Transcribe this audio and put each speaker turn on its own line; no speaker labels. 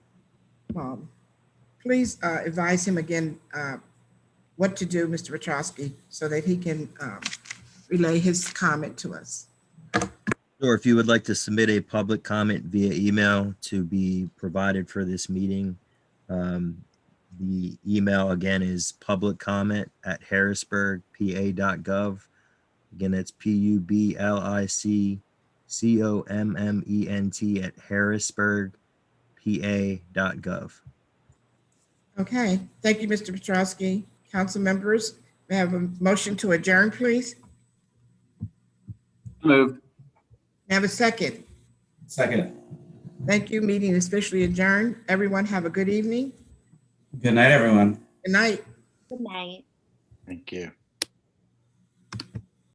Paul. Um, Please uh, advise him again uh, what to do, Mr. Petrowski, so that he can um, relay his comment to us.
Or if you would like to submit a public comment via email to be provided for this meeting, um, the email again is public comment at harrisburgpa.gov. Again, that's P U B L I C C O M M E N T at harrisburgpa.gov.
Okay, thank you, Mr. Petrowski. Council members, may I have a motion to adjourn, please?
Moved.
May I have a second?
Second.
Thank you. Meeting is officially adjourned. Everyone have a good evening.
Good night, everyone.
Good night.
Good night.
Thank you.